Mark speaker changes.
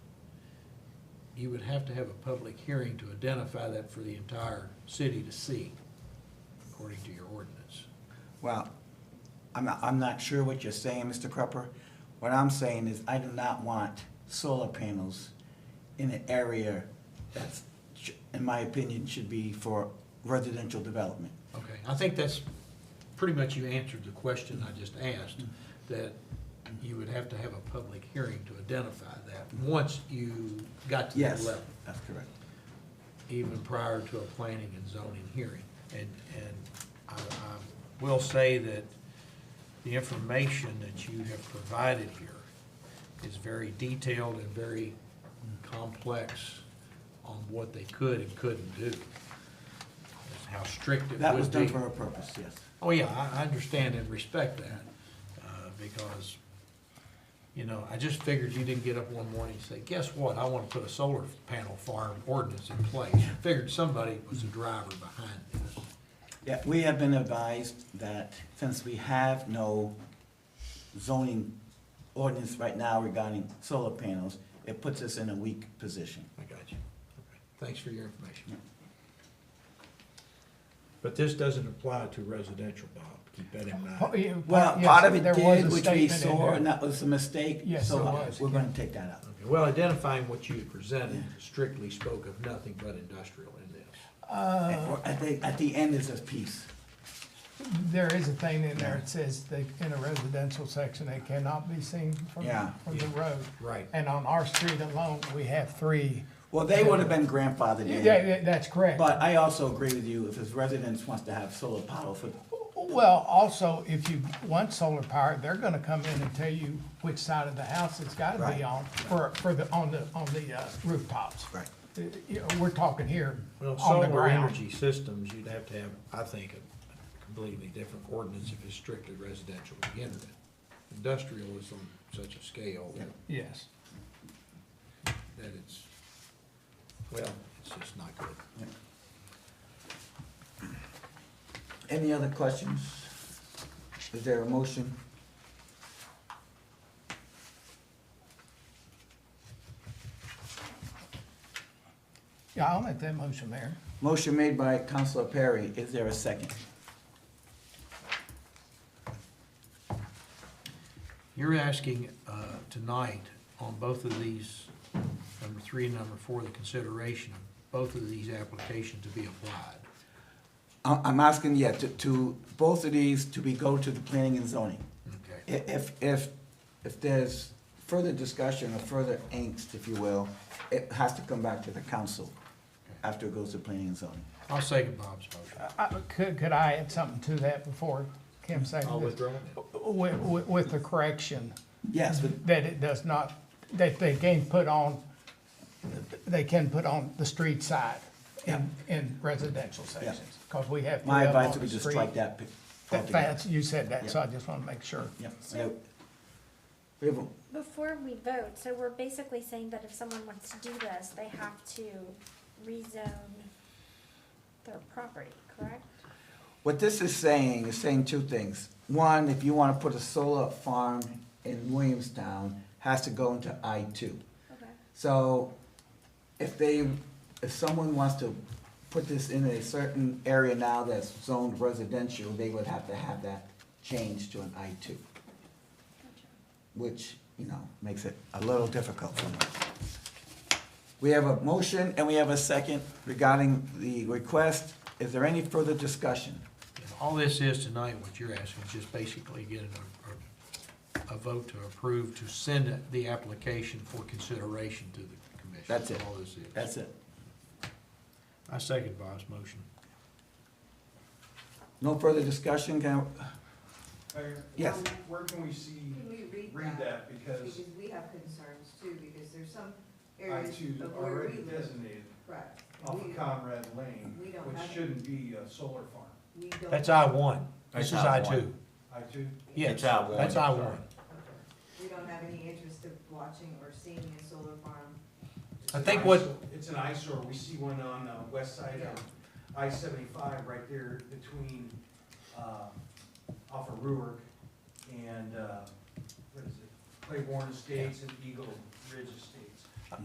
Speaker 1: you would have to have a public hearing to identify that for the entire city to see, according to your ordinance.
Speaker 2: Well, I'm not, I'm not sure what you're saying, Mr. Crupper. What I'm saying is I do not want solar panels in an area that's, sh- in my opinion, should be for residential development.
Speaker 1: Okay, I think that's, pretty much you answered the question I just asked, that you would have to have a public hearing to identify that, once you got to that
Speaker 2: Yes,
Speaker 1: level.
Speaker 2: that's correct.
Speaker 1: even prior to a planning and zoning hearing. And, and I, I will say that the information that you have provided here is very detailed and very complex on what they could and couldn't do, That's how strict it would be.
Speaker 2: That was done for a purpose, yes.
Speaker 1: Oh, yeah, I, I understand and respect that, uh, because, you know, I just figured you didn't get up one morning and say, guess what? I wanna put a solar panel farm ordinance in place. Figured somebody was the driver behind this.
Speaker 2: Yeah, we have been advised that since we have no zoning ordinance right now regarding solar panels, it puts us in a weak position.
Speaker 1: I got you. Okay. Thanks for your information. But this doesn't apply to residential, Bob, keep that in
Speaker 3: Oh, yeah,
Speaker 2: Well,
Speaker 3: yes,
Speaker 2: part of it
Speaker 3: there was a
Speaker 2: did, which we
Speaker 3: statement in
Speaker 2: saw,
Speaker 3: there.
Speaker 2: and that was a mistake.
Speaker 3: Yes,
Speaker 2: so uh,
Speaker 3: it was,
Speaker 2: We're gonna take that out.
Speaker 1: Okay, well, identifying what you presented strictly spoke of nothing but industrial in this.
Speaker 3: Uh,
Speaker 2: At the, at the end is a piece.
Speaker 3: There is a thing in there, it says that in a residential section, it cannot be seen from,
Speaker 2: Yeah.
Speaker 3: from the road.
Speaker 1: Right.
Speaker 3: And on our street alone, we have three.
Speaker 2: Well, they would have been grandfathered
Speaker 3: Yeah,
Speaker 2: in.
Speaker 3: that- that's correct.
Speaker 2: But I also agree with you, if his residents wants to have solar power for,
Speaker 3: Well, also, if you want solar power, they're gonna come in and tell you which side of the house it's gotta
Speaker 2: Right.
Speaker 3: be on for, for the, on the, on the uh, rooftops.
Speaker 2: Right.
Speaker 3: Uh, you know, We're talking here
Speaker 1: Well,
Speaker 3: on the
Speaker 1: solar
Speaker 3: ground.
Speaker 1: energy systems, you'd have to have, I think, a completely different ordinance if it's strictly residential to begin with. Industrial is on such a scale that-
Speaker 3: Yes.
Speaker 1: that it's, well, it's just not good.
Speaker 2: any other questions? Is there a motion?
Speaker 3: Yeah, I'll make that motion, Mayor.
Speaker 2: Motion made by Counselor Perry, is there a second?
Speaker 1: You're asking uh, tonight on both of these, number three and number four, the consideration of both of these applications to be applied.
Speaker 2: I- I'm asking, yeah, to, to, both of these to be go to the planning and zoning.
Speaker 1: Okay,
Speaker 2: I- If, if, if there's further discussion or further angst, if you will, it has to come back to the council after it goes to planning and zoning.
Speaker 1: I'll second Bob's motion.
Speaker 3: I- Could, could I add something to that before Kim
Speaker 1: I'll
Speaker 3: seconded?
Speaker 1: withdraw it.
Speaker 3: With, with, with the correction
Speaker 2: Yes, but
Speaker 3: that it does not, that they can put on, they can put on the street side in, in residential sections. Cause we have.
Speaker 2: my
Speaker 3: three of them
Speaker 2: advice would
Speaker 3: on
Speaker 2: be
Speaker 3: the
Speaker 2: just
Speaker 3: street.
Speaker 2: strike that. pi-
Speaker 3: That-
Speaker 2: altogether.
Speaker 3: That's, you said that, so I just wanna make sure.
Speaker 2: Yeah, so- We have, a-
Speaker 4: Before we vote, so we're basically saying that if someone wants to do this, they have to rezone their property, correct?
Speaker 2: what this is saying, is saying two things. One, if you wanna put a solar farm in Williamstown, has to go into I two.
Speaker 4: Okay.
Speaker 2: So if they, if someone wants to put this in a certain area now that's zoned residential, they would have to have that changed to an I two, which, you know, makes it a little difficult for them. We have a motion and we have a second regarding the request. Is there any further discussion?
Speaker 1: If All this is tonight, what you're asking is just basically getting a- a, a vote to approve, to send it- the application for consideration to the commission.
Speaker 2: That's it.
Speaker 1: All this is.
Speaker 2: That's it.
Speaker 1: I second Bob's motion.
Speaker 2: No further discussion? Can I-
Speaker 5: Mayor,
Speaker 2: Yes.
Speaker 5: Where where can we see,
Speaker 6: Um, Can we read that?
Speaker 5: read that, because
Speaker 6: Because we have concerns too, because there's some
Speaker 5: I
Speaker 6: areas
Speaker 5: two
Speaker 6: of where
Speaker 5: already
Speaker 6: we live.
Speaker 5: designated
Speaker 6: Right.
Speaker 5: off
Speaker 6: We-
Speaker 5: of Conrad Lane,
Speaker 6: we don't have
Speaker 5: which
Speaker 6: it.
Speaker 5: shouldn't be a solar farm.
Speaker 6: we don't-
Speaker 1: That's I one. This is
Speaker 7: That's
Speaker 1: I
Speaker 7: I
Speaker 1: two.
Speaker 5: I two,
Speaker 1: Yes,
Speaker 7: It's I one.
Speaker 1: that's I one.
Speaker 6: We don't have any interest of watching or seeing a solar farm.
Speaker 5: it's
Speaker 1: I
Speaker 5: an
Speaker 1: think what-
Speaker 5: eyesore- It's an eyesore, we see one on the west side of I seventy-five, right there between, uh, off of Ruark and, uh, what is it? Claiborne Estates and Eagle Ridge Estates.